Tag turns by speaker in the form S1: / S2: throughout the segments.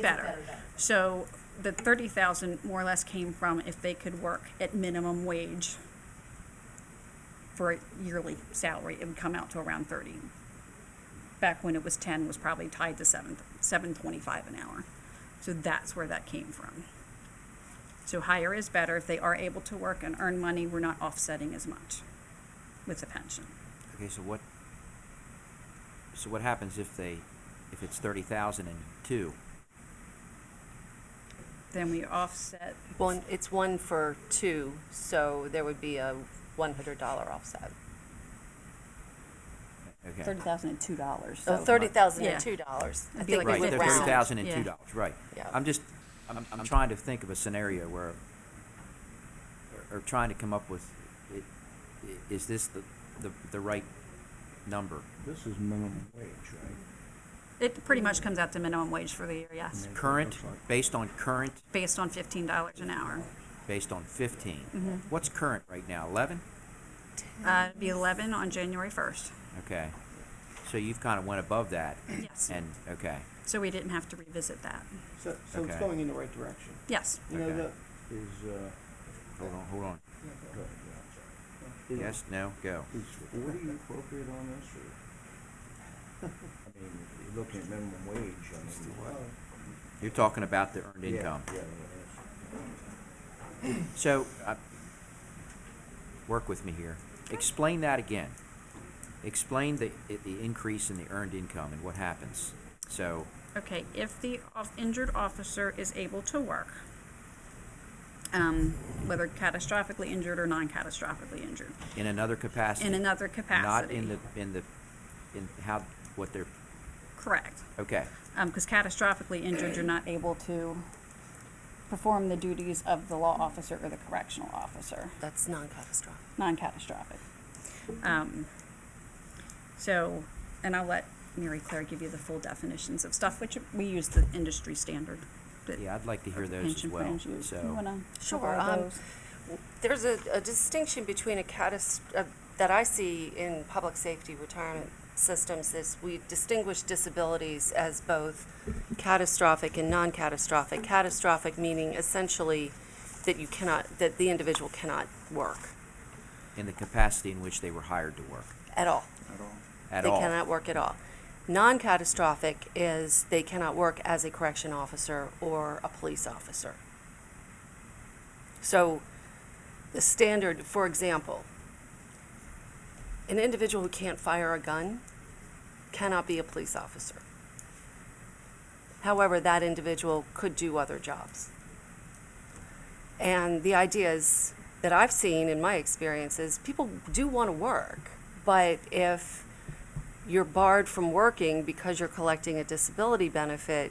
S1: better. So the thirty thousand more or less came from if they could work at minimum wage for a yearly salary, it would come out to around thirty. Back when it was ten, was probably tied to seven, seven twenty-five an hour. So that's where that came from. So higher is better. If they are able to work and earn money, we're not offsetting as much with the pension.
S2: Okay, so what, so what happens if they, if it's thirty thousand and two?
S1: Then we offset,
S3: One, it's one for two, so there would be a one hundred dollar offset.
S2: Okay,
S4: Thirty thousand and two dollars,
S3: So
S4: so.
S3: thirty thousand
S1: Oh, Yeah.
S3: and two dollars. I
S1: It'd be
S3: think
S1: like
S3: we
S2: right,
S3: would
S2: they're
S1: with
S2: thirty
S3: round.
S2: thousand and
S1: Yeah.
S2: two dollars, right.
S3: Yeah.
S2: I'm just, I'm, I'm trying to think of a scenario where, or- or trying to come up with, i- i- is this the, the, the right number?
S5: This is minimum wage, right?
S1: it pretty much comes out to minimum wage for the year, yes,
S5: That's what it
S2: Current,
S5: looks like.
S2: based on current,
S1: based on fifteen dollars an hour.
S2: based on fifteen?
S1: Mm-hmm.
S2: What's current right now, eleven?
S1: Uh, it'd be eleven on January first.
S2: Okay, so you've kind of went above that?
S1: Yes.
S2: And, okay,
S1: So we didn't have to revisit that.
S6: So, so it's
S2: Okay.
S6: going in the right direction.
S1: Yes.
S6: You know,
S2: Okay.
S6: the,
S5: Is, uh.
S2: hold on, hold on.
S5: go ahead, yeah, I'm sorry.
S2: Yes, no, go.
S5: Is forty appropriate on this, or? I mean, if you're looking at minimum wage, I mean.
S2: You're talking about the earned
S5: Yeah,
S2: income.
S5: yeah, yeah,
S2: So, uh, work with me here. Explain that again. Explain the, i- the increase in the earned income and what happens. So,
S1: Okay, if the off- injured officer is able to work, um, whether catastrophically injured or non-catastrophically injured,
S2: in another capacity.
S1: in another
S2: Not
S1: capacity.
S2: in the, in the, in how, what they're,
S1: Correct.
S2: okay,
S1: Because catastrophically injured, you're not able to perform the duties of the law officer or the correctional officer,
S3: That's non-catastrophic.
S1: non-catastrophic. Um, So, and I'll let Mary Claire give you the full definitions of stuff, which we use the industry standard. but-
S2: yeah, I'd like to hear those as
S1: pension
S2: well,
S1: plans you-
S2: so.
S4: You wanna
S3: Sure,
S4: cover all
S3: um,
S4: those?
S3: There's a, a distinction between a catas, uh, that I see in public safety retirement systems is we distinguish disabilities as both catastrophic and non-catastrophic. Catastrophic meaning essentially that you cannot, that the individual cannot work
S2: In the capacity in which they were hired to work,
S3: at all.
S5: At all.
S2: at
S3: they
S2: all.
S3: cannot work at all. Non-catastrophic is they cannot work as a correction officer or a police officer. So the standard, for example, an individual who can't fire a gun cannot be a police officer. However, that individual could do other jobs. And the ideas that I've seen in my experiences, people do want to work, but if you're barred from working because you're collecting a disability benefit,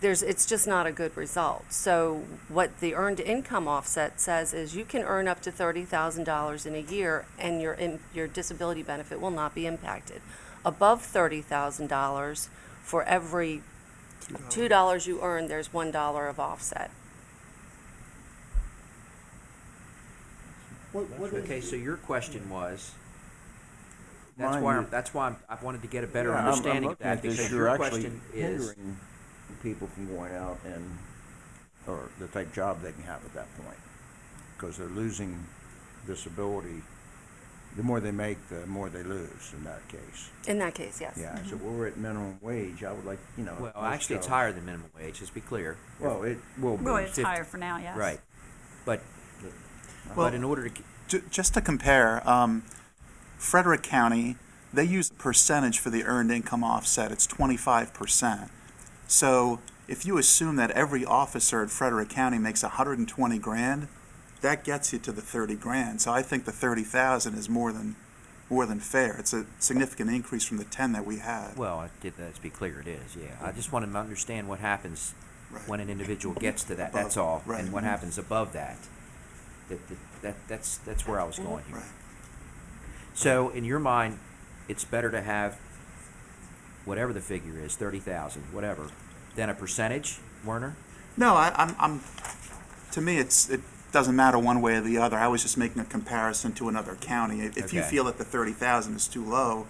S3: there's it's just not a good result. So what the earned income offset says is you can earn up to thirty thousand dollars in a year, and your in, your disability benefit will not be impacted. Above thirty thousand dollars, for every two dollars you earn, there's one dollar of offset.
S6: what, what is?
S2: Okay, so your question was, that's
S5: Mine
S2: why,
S5: was-
S2: I'm- that's why I'm- I wanted to get a better
S5: Yeah, I'm- I'm
S2: understanding of
S5: looking at
S2: that,
S5: this,
S2: because
S5: you're
S2: your
S5: actually
S2: question is,
S5: hindering People from going out and, or the type of job they can have at that point, because they're losing disability. The more they make, the more they lose in that case.
S3: In that case, yes.
S5: Yeah, so
S1: Mm-hmm.
S5: we're at minimum wage, I would like, you know.
S2: well,
S5: most
S2: actually, it's
S5: jobs-
S2: higher than minimum wage, let's be clear.
S5: Well, it will be.
S1: Well, it's
S2: fifty.
S1: higher for now, yes.
S2: Right, but,
S7: Well-
S2: but in order to, k-
S7: Ju- Just to compare, um, Frederick County, they use a percentage for the earned income offset, it's twenty-five percent. So if you assume that every officer in Frederick County makes hundred and twenty grand, that gets you to the thirty grand, so I think the thirty thousand is more than, more than fair. It's a significant increase from the ten that we had.
S2: well, I did- let's be clear, it is, yeah. I just want to understand what happens
S7: Right.
S2: when an individual gets to that,
S7: Above,
S2: that's all,
S7: right. Mm-hmm.
S2: and what happens above that. That, that, that- that's, that's where I was going here.
S7: Right.
S2: So in your mind, it's better to have whatever the figure is, thirty thousand, whatever, than a percentage, Werner?
S7: No, I, I'm, I'm, to me, it's, it doesn't matter one way or the other. I was just making a comparison to another county. If if you
S2: Okay.
S7: feel that the thirty thousand is too low,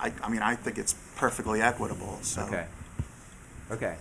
S7: I, I mean, I think it's perfectly equitable, so.
S2: Okay. Okay.